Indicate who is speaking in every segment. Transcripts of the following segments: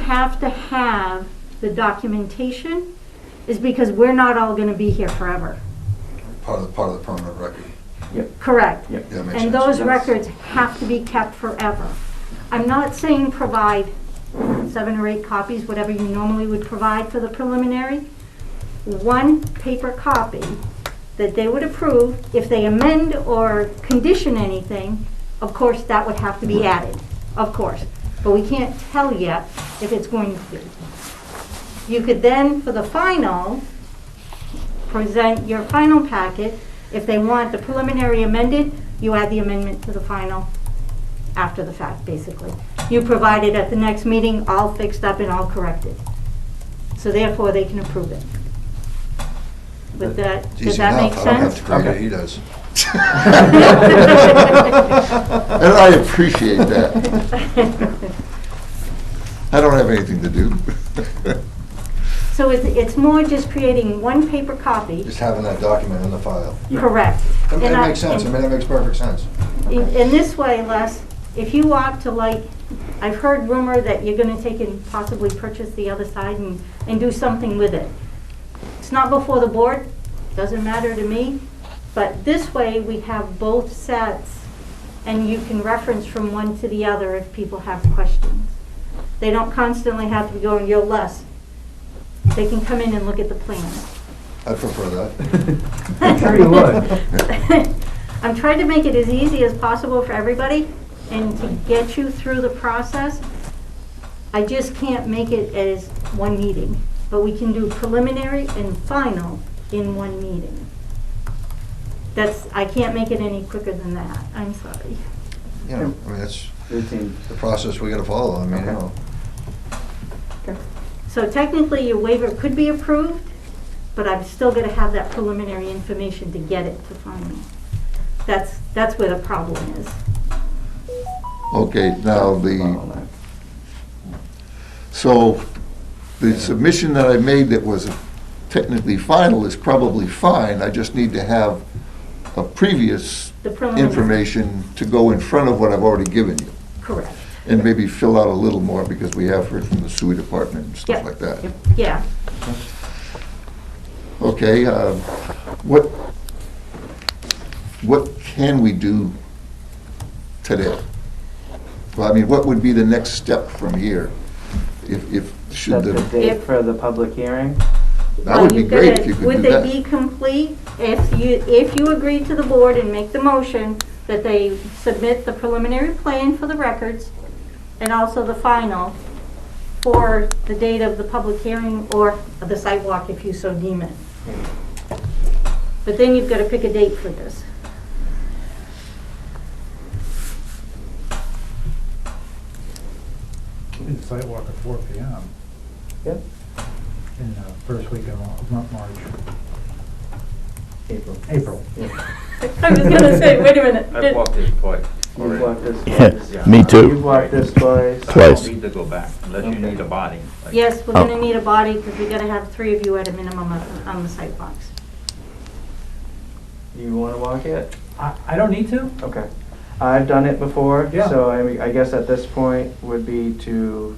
Speaker 1: have to have the documentation is because we're not all gonna be here forever.
Speaker 2: Part of, the part of the permanent record.
Speaker 1: Correct.
Speaker 3: Yep.
Speaker 2: Yeah, that makes
Speaker 1: And
Speaker 2: sense.
Speaker 1: those
Speaker 3: Yes.
Speaker 1: records have to be kept forever. I'm not saying provide seven or eight copies, whatever you normally would provide for the preliminary. One paper copy that they would approve. If they amend or condition anything, of course, that would have to be added, of course. But we can't tell yet if it's going to be. You could then, for the final, present your final packet. If they want the preliminary amended, you add the amendment to the final after the fact, basically. You provide it at the next meeting, all fixed up and all corrected. So therefore, they can approve it. With that,
Speaker 2: It's
Speaker 1: does
Speaker 2: easy
Speaker 1: that
Speaker 2: enough.
Speaker 1: make
Speaker 2: I don't have
Speaker 1: sense?
Speaker 2: to create it,
Speaker 3: Okay.
Speaker 2: he does. And I appreciate that. I don't have anything to do.
Speaker 1: So it's, it's more just creating one paper copy,
Speaker 2: Just having that document in the file.
Speaker 1: correct.
Speaker 2: I mean,
Speaker 1: And
Speaker 2: It
Speaker 1: I-
Speaker 2: makes sense, I
Speaker 1: and-
Speaker 2: mean, it makes perfect sense.
Speaker 1: In, in this way, Les, if you opt to like, I've heard rumor that you're gonna take and possibly purchase the other side and, and do something with it. It's not before the board, doesn't matter to me, but this way, we have both sets, and you can reference from one to the other if people have questions. They don't constantly have to be going, yo, Les, they can come in and look at the plan.
Speaker 2: I prefer that.
Speaker 3: I'm sure you would.
Speaker 1: I'm trying to make it as easy as possible for everybody and to get you through the process. I just can't make it as one meeting, but we can do preliminary and final in one meeting. That's, I can't make it any quicker than that, I'm sorry.
Speaker 2: You know, I mean, that's
Speaker 3: It seems-
Speaker 2: the process we gotta follow, I mean, you
Speaker 3: Okay.
Speaker 2: know.
Speaker 1: So technically, your waiver could be approved, but I'm still gonna have that preliminary information to get it to final. That's, that's where the problem is.
Speaker 4: Okay, now the,
Speaker 3: bottleneck.
Speaker 4: so the submission that I made that was technically final is probably fine. I just need to have a previous
Speaker 1: The preliminary.
Speaker 4: information to go in front of what I've already given you.
Speaker 1: Correct.
Speaker 4: And maybe fill out a little more because we have heard from the sewer department and
Speaker 1: Yep.
Speaker 4: stuff like that.
Speaker 1: Yeah.
Speaker 4: Okay, uh, what, what can we do today? Well, I mean, what would be the next step from here? If, if, should
Speaker 3: Set
Speaker 4: the.
Speaker 3: the date
Speaker 1: If-
Speaker 3: for the public hearing.
Speaker 4: That
Speaker 1: Well,
Speaker 4: would be
Speaker 1: you've
Speaker 4: great
Speaker 1: gotta-
Speaker 4: if you could
Speaker 1: Would
Speaker 4: do
Speaker 1: they be
Speaker 4: that.
Speaker 1: complete if you, if you agree to the board and make the motion that they submit the preliminary plan for the records and also the final for the date of the public hearing or the sidewalk if you so deem it? But then you've got to pick a date for this.
Speaker 5: We did sidewalk at four P M
Speaker 3: Yep.
Speaker 5: in the first week of Mar- not March,
Speaker 3: April.
Speaker 5: April.
Speaker 1: I was going to say, wait a minute.
Speaker 6: I've walked this twice.
Speaker 3: You've walked this
Speaker 6: Yeah.
Speaker 3: twice.
Speaker 7: Me too.
Speaker 3: You've walked this twice.
Speaker 6: I
Speaker 7: Twice.
Speaker 6: don't need to go back unless you
Speaker 3: Okay.
Speaker 6: need a body. like-
Speaker 1: Yes, we're going to need a body because we got to have three of you at a minimum of- on the sidewalks.
Speaker 3: You wanna walk it?
Speaker 5: I, I don't need to.
Speaker 3: Okay. I've done it before,
Speaker 5: Yeah.
Speaker 3: so I mean, I guess at this point would be to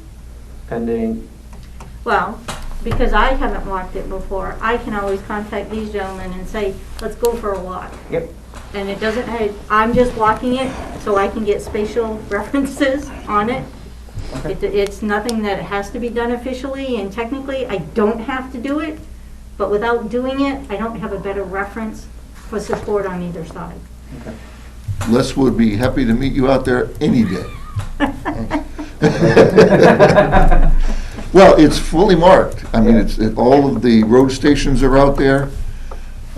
Speaker 3: pending,
Speaker 1: Well, because I haven't walked it before, I can always contact these gentlemen and say, let's go for a walk.
Speaker 3: yep,
Speaker 1: And it doesn't, I- I'm just walking it so I can get spatial references on it.
Speaker 3: Okay.
Speaker 1: It- It's nothing that has to be done officially and technically, I don't have to do it. But without doing it, I don't have a better reference for support on either side.
Speaker 3: okay.
Speaker 4: Les would be happy to meet you out there any day. Well, it's fully marked. I mean, it's, it- all of the road stations are out there.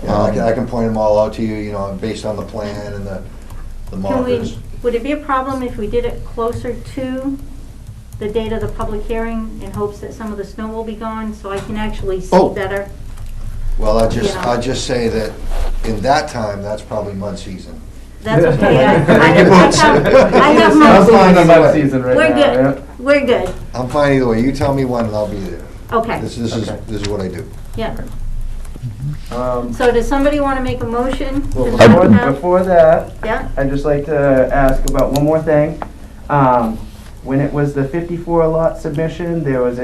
Speaker 2: You
Speaker 1: Um,
Speaker 2: know, I can, I can point them all out to you, you know, based on the plan and the, the
Speaker 1: Can we,
Speaker 2: markers.
Speaker 1: would it be a problem if we did it closer to the date of the public hearing in hopes that some of the snow will be gone, so I can actually see
Speaker 4: Oh.
Speaker 1: better?
Speaker 2: Well, I just,
Speaker 1: Yeah.
Speaker 2: I just say that in that time, that's probably mud season.
Speaker 1: That's okay, I, I I have, I have my,
Speaker 3: Sounds like
Speaker 2: either
Speaker 3: mud
Speaker 2: way.
Speaker 3: season right
Speaker 1: we're
Speaker 3: now,
Speaker 1: good, we're good,
Speaker 2: I'm fine either way, you tell me when and I'll be there.
Speaker 1: okay,
Speaker 2: This, this is,
Speaker 3: Okay.
Speaker 2: this is what I do.
Speaker 1: yeah.
Speaker 3: yep. Um,
Speaker 1: So does somebody want to make a motion?
Speaker 3: well,
Speaker 1: Does
Speaker 3: before,
Speaker 1: someone have-
Speaker 3: before that,
Speaker 1: Yeah,
Speaker 3: I'd just like to ask about one more thing. Um, When it was the 54 lot submission, there was